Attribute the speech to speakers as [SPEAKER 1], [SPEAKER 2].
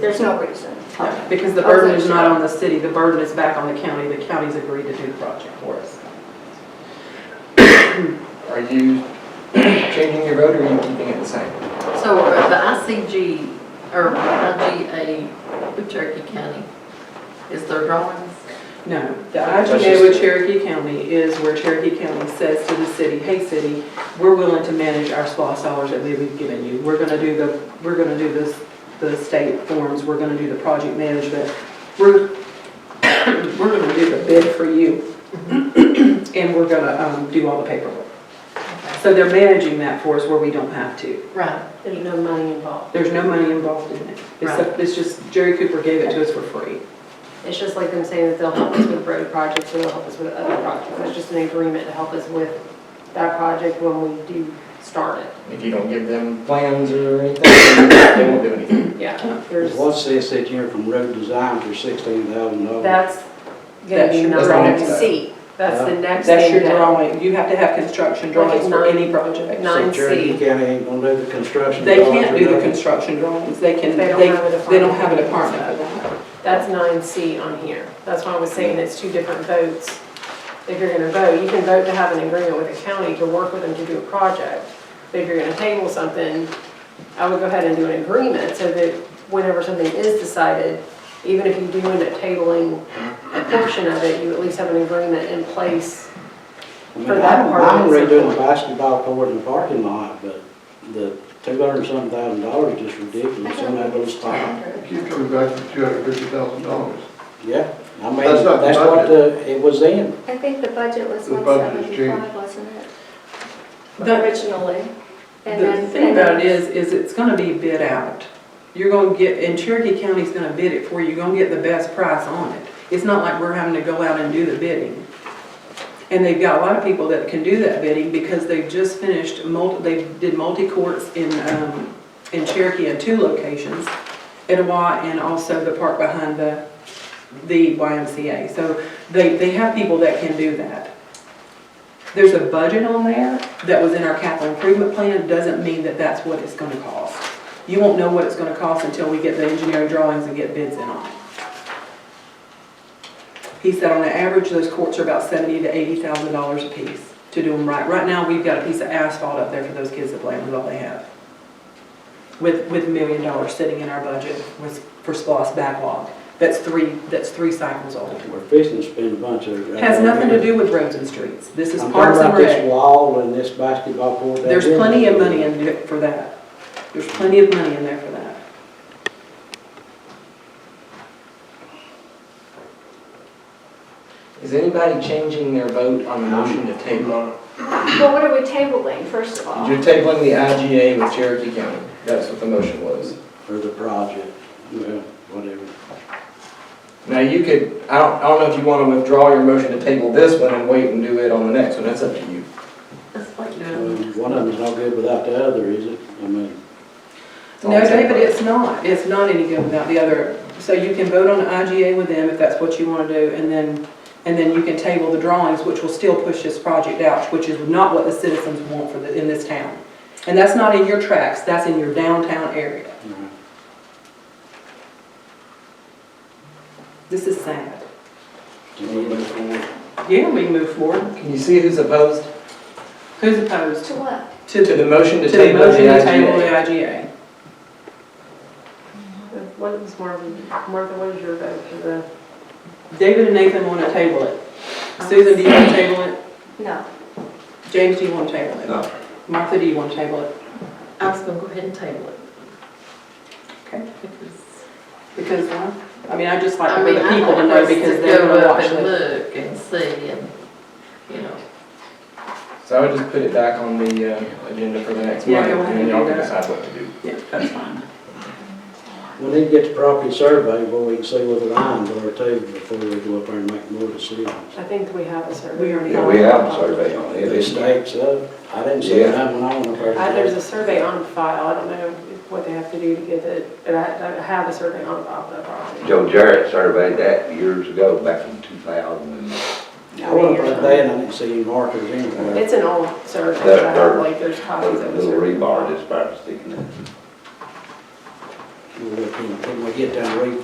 [SPEAKER 1] There's no reason.
[SPEAKER 2] Okay, Because the burden is not on the city, the burden is back on the county, the county's agreed to do the project for us.
[SPEAKER 3] Are you changing your vote or are you keeping it the same?
[SPEAKER 4] So uh, the ICG, or IGA, of Cherokee County, is their drawings?
[SPEAKER 2] No, the
[SPEAKER 3] That's just-
[SPEAKER 2] IGA with Cherokee County is where Cherokee County says to the city, hey, city, we're willing to manage our SPOS dollars that we've given you. We're gonna do the, we're gonna do this, the state forms, we're gonna do the project management. We're, we're gonna do the bid for you. And we're gonna, um, do all the paperwork. So they're managing that for us where we don't have to.
[SPEAKER 4] Right,
[SPEAKER 1] There's no money involved.
[SPEAKER 2] There's no money involved in it. It's, a- it's just Jerry Cooper gave it to us for free.
[SPEAKER 1] It's just like them saying that they'll help us with road projects and they'll help us with other projects. It's just an agreement to help us with that project when we do start it.
[SPEAKER 3] If you don't give them plans or anything, they won't do anything.
[SPEAKER 1] Yeah. There's,
[SPEAKER 5] What's this that you're E from road design for sixteen thousand dollars?
[SPEAKER 1] that's gonna be
[SPEAKER 2] That's your
[SPEAKER 1] number
[SPEAKER 3] drawing.
[SPEAKER 1] C. That's the next
[SPEAKER 2] That's
[SPEAKER 1] thing
[SPEAKER 2] your
[SPEAKER 1] down.
[SPEAKER 2] drawing. You have to have construction
[SPEAKER 1] Look at
[SPEAKER 2] drawings for
[SPEAKER 1] nine-
[SPEAKER 2] any project.
[SPEAKER 1] nine
[SPEAKER 5] So Cherokee
[SPEAKER 1] C.
[SPEAKER 5] County ain't gonna do the construction.
[SPEAKER 2] They
[SPEAKER 5] drawings
[SPEAKER 2] can't
[SPEAKER 5] or
[SPEAKER 2] do the
[SPEAKER 5] nothing?
[SPEAKER 2] construction drawings. They can,
[SPEAKER 1] They
[SPEAKER 2] they,
[SPEAKER 1] don't have a
[SPEAKER 2] they don't
[SPEAKER 1] department.
[SPEAKER 2] have a department for that.
[SPEAKER 1] That's nine C on here. That's why I was saying it's two different votes. If you're gonna vote, you can vote to have an agreement with the county to work with them to do a project. But if you're gonna table something, I would go ahead and do an agreement so that whenever something is decided, even if you do end up tabling a portion of it, you at least have an agreement in place.
[SPEAKER 5] I mean,
[SPEAKER 1] for that
[SPEAKER 5] I don't
[SPEAKER 1] part
[SPEAKER 5] mind
[SPEAKER 1] that's
[SPEAKER 5] redoing the
[SPEAKER 1] important.
[SPEAKER 5] basketball court in the parking lot, but the two hundred and some thousand dollars is just ridiculous, some of those times.
[SPEAKER 6] Keep coming back to two hundred fifty thousand dollars.
[SPEAKER 5] Yeah, I mean,
[SPEAKER 6] That's not
[SPEAKER 5] that's what the, it was in.
[SPEAKER 7] I think the budget was
[SPEAKER 6] The budget is changed.
[SPEAKER 7] 175, wasn't it,
[SPEAKER 2] The-
[SPEAKER 7] originally? And
[SPEAKER 2] The
[SPEAKER 7] then-
[SPEAKER 2] thing about it is, is it's gonna be bid out. You're gonna get, and Cherokee County's gonna bid it for you. You're gonna get the best price on it. It's not like we're having to go out and do the bidding. And they've got a lot of people that can do that bidding because they've just finished multi, they did multi-courts in, um, in Cherokee in two locations, Etowah and also the park behind the, the YMCA. So they, they have people that can do that. There's a budget on there that was in our capital improvement plan, doesn't mean that that's what it's gonna cost. You won't know what it's gonna cost until we get the engineering drawings and get bids in on it. He said on the average, those courts are about seventy to eighty thousand dollars apiece to do them right. Right now, we've got a piece of asphalt up there for those kids that play with all they have. With, with a million dollars sitting in our budget was for SPOS backlog. That's three, that's three cycles old.
[SPEAKER 5] We're fixing to spend a bunch of. uh,
[SPEAKER 2] Has nothing to do with roads and streets. This is
[SPEAKER 5] I'm
[SPEAKER 2] parks
[SPEAKER 5] talking
[SPEAKER 2] and
[SPEAKER 5] about
[SPEAKER 2] rec.
[SPEAKER 5] this wall and this basketball court. that
[SPEAKER 2] There's
[SPEAKER 5] is-
[SPEAKER 2] plenty of money in it for that. There's plenty of money in there for that.
[SPEAKER 3] Is anybody changing their vote on the motion to table?
[SPEAKER 7] Well, what are we tabling, first of all?
[SPEAKER 3] You're tabling the IGA with Cherokee County. That's what the motion was.
[SPEAKER 5] For the project, well, whatever.
[SPEAKER 3] Now, you could, I don't, I don't know if you want to withdraw your motion to table this one and wait and do it on the next one. That's up to you.
[SPEAKER 4] it's like,
[SPEAKER 5] Um, One of them's no good without the other, is it? I mean.
[SPEAKER 3] It's all
[SPEAKER 2] No,
[SPEAKER 3] the same
[SPEAKER 2] David,
[SPEAKER 3] vote.
[SPEAKER 2] it's not. It's not any good without the other. So you can vote on IGA with them if that's what you want to do, and then, and then you can table the drawings, which will still push this project out, which is not what the citizens want for the, in this town. And that's not in your tracks, that's in your downtown area. This is sad.
[SPEAKER 5] Can we move forward?
[SPEAKER 2] Yeah, we can move forward.
[SPEAKER 3] Can you see who's opposed
[SPEAKER 2] Who's opposed
[SPEAKER 7] To what?
[SPEAKER 2] to
[SPEAKER 3] to
[SPEAKER 2] the,
[SPEAKER 3] the motion to
[SPEAKER 2] to the
[SPEAKER 3] table the
[SPEAKER 2] motion to table the
[SPEAKER 3] IGA?
[SPEAKER 2] IGA?
[SPEAKER 1] What is Martha, Martha, what is your vote for the?
[SPEAKER 2] David and Nathan want to table it. Susan, do you want to table it?
[SPEAKER 7] No.
[SPEAKER 2] James, do you want to table it?
[SPEAKER 3] No.
[SPEAKER 2] Martha, do you want to table it?
[SPEAKER 4] I was gonna go ahead and table it.
[SPEAKER 2] Okay.
[SPEAKER 4] Because-
[SPEAKER 2] Because, uh, I mean, I just like
[SPEAKER 4] I
[SPEAKER 2] for
[SPEAKER 4] mean,
[SPEAKER 2] the
[SPEAKER 4] I
[SPEAKER 2] people to
[SPEAKER 4] want
[SPEAKER 2] know
[SPEAKER 4] us
[SPEAKER 2] because they're going to watch
[SPEAKER 4] Go up and
[SPEAKER 2] it.
[SPEAKER 4] look and see and, you know,
[SPEAKER 3] So I would just put it back on the uh, agenda for the next
[SPEAKER 2] Yeah,
[SPEAKER 3] month,
[SPEAKER 2] go ahead
[SPEAKER 3] and then
[SPEAKER 2] and
[SPEAKER 3] y'all
[SPEAKER 2] do
[SPEAKER 3] can
[SPEAKER 2] that.
[SPEAKER 3] decide what to do.
[SPEAKER 2] Yeah, that's fine.
[SPEAKER 5] We need to get the property surveyed where we can see what the lines are too before we go up there and make more decisions.
[SPEAKER 1] I think we have a survey.
[SPEAKER 2] We already
[SPEAKER 8] Yeah, we have a survey on it.
[SPEAKER 5] The
[SPEAKER 8] It's
[SPEAKER 5] stakes up, I didn't see
[SPEAKER 8] Yeah.
[SPEAKER 5] that when I went up there.
[SPEAKER 1] Uh, There's a survey on file, I don't know what they have to do to get it, but I I have a survey on file for that property.
[SPEAKER 8] Joe Jarrett surveyed that years ago, back in 2000.
[SPEAKER 5] I went up there and I didn't see any markers anywhere.
[SPEAKER 1] It's an old survey,
[SPEAKER 8] That-
[SPEAKER 1] but I have,
[SPEAKER 8] that-
[SPEAKER 1] like, there's copies of
[SPEAKER 8] Little
[SPEAKER 1] the
[SPEAKER 8] little
[SPEAKER 1] survey.
[SPEAKER 8] rebar that's about sticking in.
[SPEAKER 5] we'll look in, when we get down, read